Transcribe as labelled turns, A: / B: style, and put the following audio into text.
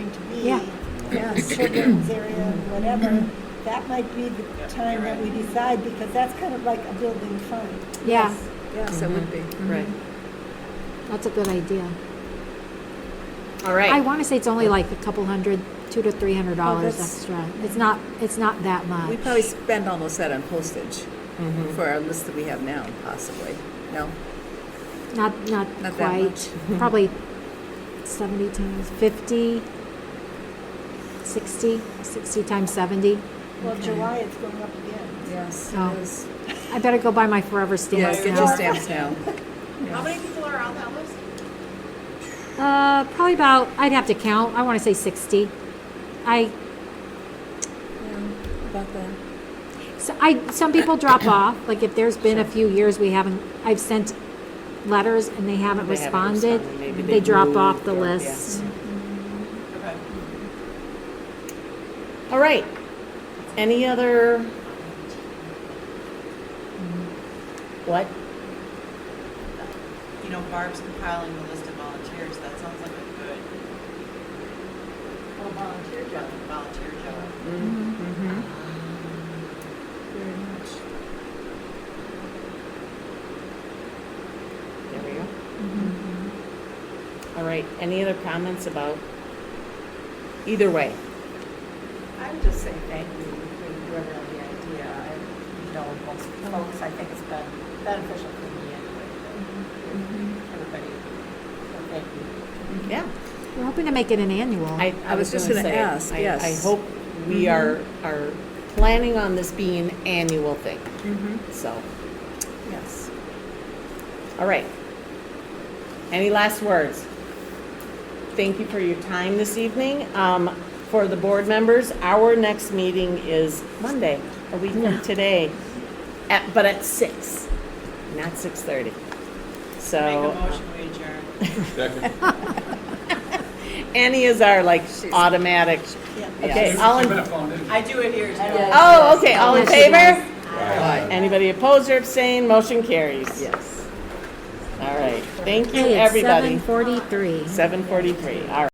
A: going to be,
B: Yeah.
A: yeah, children's area, whatever, that might be the
C: Yep,
A: time
C: you're
A: that we
C: right.
A: decide, because that's kind of like a building fund.
B: Yeah,
A: Yes,
D: Yes, it would be,
C: Mm-hmm.
D: right.
E: Mm-hmm.
B: that's a good idea.
D: All
B: I
D: right, Oh,
B: want to say it's only like a couple hundred, two to three hundred dollars
D: that's-
B: extra. It's not, it's not that much.
D: we probably spend almost that on postage
C: Mm-hmm.
D: for our list that we have now, possibly. No?
B: Not, not
D: Not that
B: quite. Probably seventy times fifty, sixty, sixty times seventy.
A: Well, July, it's going up again.
D: Yes,
C: Oh.
B: No.
D: it is.
B: I better go buy my forever
D: Yeah,
B: stamps
D: get your
B: now.
D: stamps now.
E: How many people are on that list?
B: Uh, probably about, I'd have to count. I want to say sixty. I,
D: About that.
B: So I, some people drop off, like if there's been a few years we haven't, I've sent letters and they haven't
C: They haven't
B: responded,
C: responded. Maybe
B: they
C: they've
B: drop off
C: moved
B: the
C: or- yeah.
B: list.
E: Okay.
C: All right. Any other? What?
E: You know, Barb's compiling the list of volunteers, that sounds like a good. Oh, volunteer job. Volunteer job.
C: Mm-hmm.
D: Very much.
C: There we go. All right. Any other comments about? Either way.
F: I would just say thank you for whoever had the idea. I, you know, most folks, I think it's been beneficial for me anyway. that Everybody, so thank you.
C: Yeah.
B: We're hoping to make it an annual.
C: I,
D: I was just
C: gonna
D: gonna
C: say,
D: ask,
C: I- I
D: yes. Mm-hmm.
C: hope we are, are planning on this being an annual thing. So,
D: Mm-hmm. Yes.
C: all right. Any last words? Thank you for your time this evening. Um, for the board members, our next meeting is Monday, a week from today, at, but at six, not six thirty. So,
E: Make a motion, we adjourn.
G: Second.
C: Annie is our like automatic. Okay, all in,
E: I do adhere to that.
C: oh, okay, all in
B: Yes, she does.
C: favor? Anybody opposed or abstained, motion carries.
D: Yes.
C: All right, thank you,
B: Hey, it's
C: everybody.
B: seven forty-three.
C: 7:43, all right.